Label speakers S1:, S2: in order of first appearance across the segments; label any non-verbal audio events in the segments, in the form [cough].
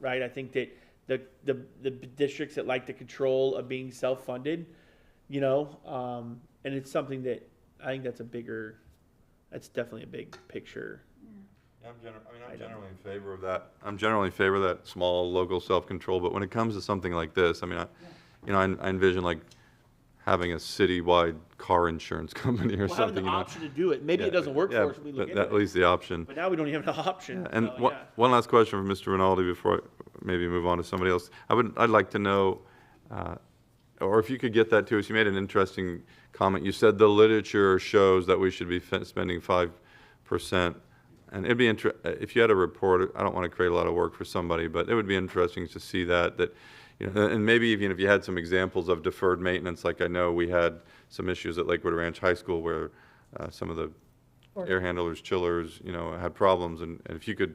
S1: right? I think that the, the, the districts that like the control of being self-funded, you know, um, and it's something that, I think that's a bigger, that's definitely a big picture.
S2: Yeah, I'm gener, I mean,
S1: I
S2: I'm
S1: don't know.
S2: generally in favor of that. I'm generally in favor of that small local self-control, but when it comes to something like this, I mean, I, you know, I I envision like having a citywide car insurance [laughs] company or
S1: Well, having
S2: something,
S1: the
S2: you know?
S1: option to do it, maybe it
S2: Yeah,
S1: doesn't work
S2: yeah,
S1: for us, when we look
S2: but
S1: into
S2: At
S1: it,
S2: least the option.
S1: but now we don't even have an option,
S2: And
S1: so,
S2: one,
S1: Oh, yeah.
S2: one last question for Mr. Rinaldi before I maybe move on to somebody else. I would, I'd like to know, uh, or if you could get that to us, you made an interesting comment. You said the literature shows that we should be fin- spending five percent. And it'd be inter, uh, if you had a report, I don't want to create a lot of work for somebody, but it would be interesting to see that, that, you know, and maybe even if you had some examples of deferred maintenance, like I know we had some issues at Lakewood Ranch High School where uh, some of the air handlers, chillers, you know, had problems, and, and if you could,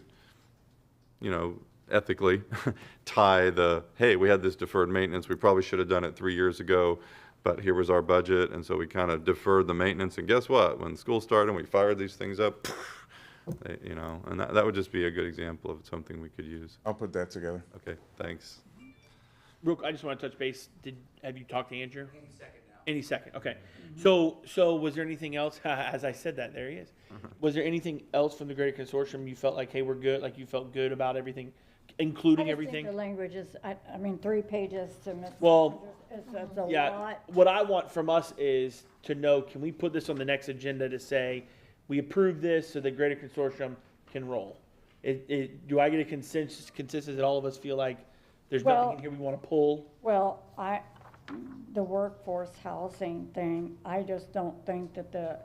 S2: you know, ethically [laughs] tie the, hey, we had this deferred maintenance, we probably should have done it three years ago, but here was our budget, and so we kind of deferred the maintenance, and guess what? When school started and we fired these things up, [laughs] they- you know, and that, that would just be a good example of something we could use.
S3: I'll put that together.
S2: Okay, thanks.
S1: Real, I just want to touch base. Did, have you talked to Andrew? Any second now. Any second, okay.
S4: Mm-hmm.
S1: So, so was there anything else, [laughs] as I said that, there he is.
S2: Mm-hmm.
S1: Was there anything else from the Greater Consortium you felt like, hey, we're good, like you felt good about everything, including
S4: I just think the
S1: everything?
S4: language is, I, I mean, three pages to Mr.
S1: Well,
S4: It's, it's a
S1: Yeah,
S4: lot.
S1: what I want from us is to know, can we put this on the next agenda to say, we approve this so the Greater Consortium can roll? It, it, do I get a consensus, consensus that all of us feel like there's nothing
S4: Well-
S1: in here we want to pull?
S4: Well, I, the workforce housing thing, I just don't think that the,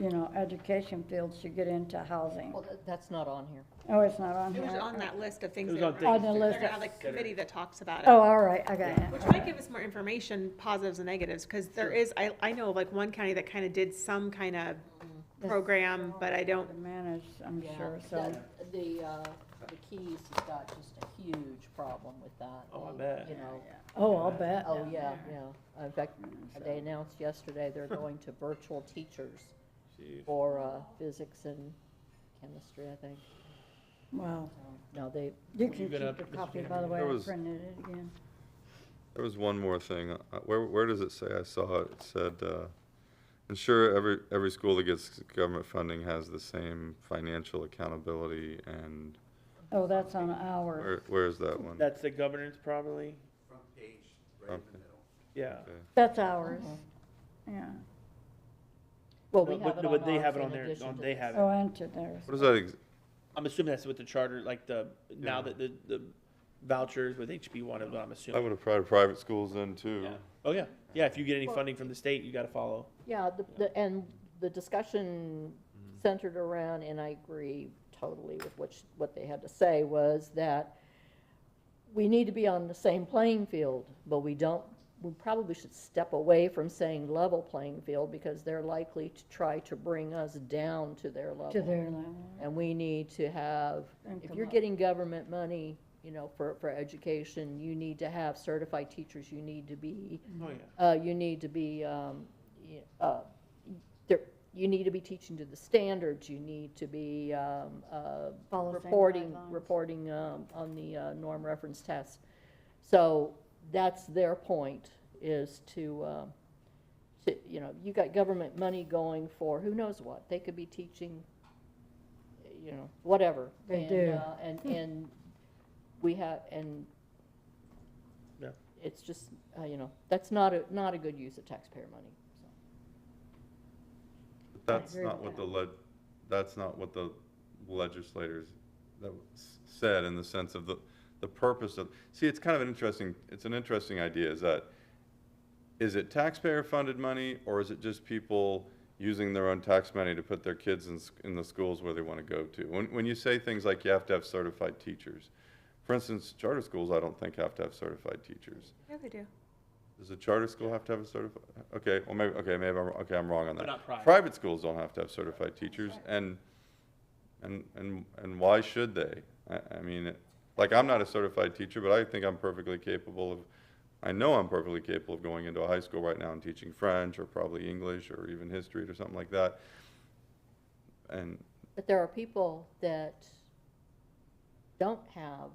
S4: you know, education field should get into housing.
S5: Well, th- that's not on here.
S4: Oh, it's not on
S6: It
S4: here.
S6: was on that list of things.
S1: It was
S6: that
S1: on
S6: were-
S1: things.
S4: On the list
S6: They're
S4: of-
S6: on the committee that talks about
S4: Oh,
S6: it,
S4: all right, I got it.
S6: which might give us more information, positives and negatives, because there is, I, I know of like one county that kind of did some kind of Mm-hmm. program, but I don't,
S4: To manage, I'm
S5: Yeah,
S4: sure, so.
S5: that- The, uh, the Keys has got just a huge problem with that.
S1: Oh, I
S5: They,
S1: bet.
S5: You know,
S4: Oh, I'll bet.
S5: oh, yeah, yeah. In fact, they announced yesterday
S1: [laughs]
S5: they're going to virtual teachers for, uh, physics and chemistry, I think.
S4: Wow.
S5: No, they,
S4: You
S1: You
S4: can keep
S1: gonna-
S4: your copy, by the way,
S2: There
S4: I
S2: was-
S4: printed it again.
S2: There was one more thing. Uh, Where, where does it say? I saw it. It said, uh, ensure every, every school that gets government funding has the same financial accountability and,
S4: Oh, that's on ours.
S2: where, where is that one?
S1: That's the governance probably,
S7: front page, right in
S2: Okay.
S7: the middle.
S1: yeah.
S4: That's ours. Yeah.
S5: well,
S1: No,
S5: we
S1: but-
S5: have it
S1: no,
S5: on
S1: but they have
S5: ours
S1: it
S5: in
S1: on their-
S5: addition
S1: on-
S5: to
S1: they
S5: this.
S1: have it.
S4: Oh, entered there.
S2: What is that? ex-
S1: I'm assuming that's with the charter, like the, now that the, the vouchers with HB one is what I'm
S2: I
S1: assuming.
S2: would have tried private schools then too.
S1: Yeah. Oh, yeah, yeah, if you get any funding from the state, you gotta follow.
S5: Yeah, the, the, and the discussion centered around, and I agree totally with what, sh- what they had to say, was that we need to be on the same playing field, but we don't, we probably should step away from saying level playing field, because they're likely to try to bring us down to their
S4: To
S5: level.
S4: their level.
S5: And we need to have,
S4: And
S5: if
S4: come
S5: you're
S4: up.
S5: getting government money, you know, for, for education, you need to have certified teachers, you need to be
S1: Oh, yeah.
S5: uh, you need to be, um, y- uh, there, you need to be teaching to the standards, you need to be, um, uh,
S4: Follow same
S5: reporting,
S4: guidelines.
S5: reporting, um, on the, uh, norm reference test. So that's their point, is to, um, to, you know, you got government money going for who knows what, they could be teaching, you know, whatever.
S4: They
S5: And,
S4: do. Hmm.
S5: uh, And, and we have, and
S1: Yeah.
S5: it's just, uh, you know, that's not a, not a good use of taxpayer money, so.
S2: But That's
S4: agree
S2: not
S4: with
S2: what the leg, that's not what the legislators that s- said in the sense of the, the purpose of, see, it's kind of an interesting, it's an interesting idea is that, is it taxpayer-funded money or is it just people using their own tax money to put their kids in, s- in the schools where they want to go to? When, when you say things like you have to have certified teachers, for instance, charter schools, I don't think have to have certified teachers.
S6: yeah, they do.
S2: Does a charter school have to have a certified, okay, well, maybe, okay, maybe I'm, okay, I'm wrong on that.
S1: But not private.
S2: schools don't have to have certified teachers, and, and, and, and why should they? I, I mean, it- like, I'm not a certified teacher, but I think I'm perfectly capable of, I know I'm perfectly capable of going into a high school right now and teaching French, or probably English, or even history, or something like that. And,
S5: But there are people that don't have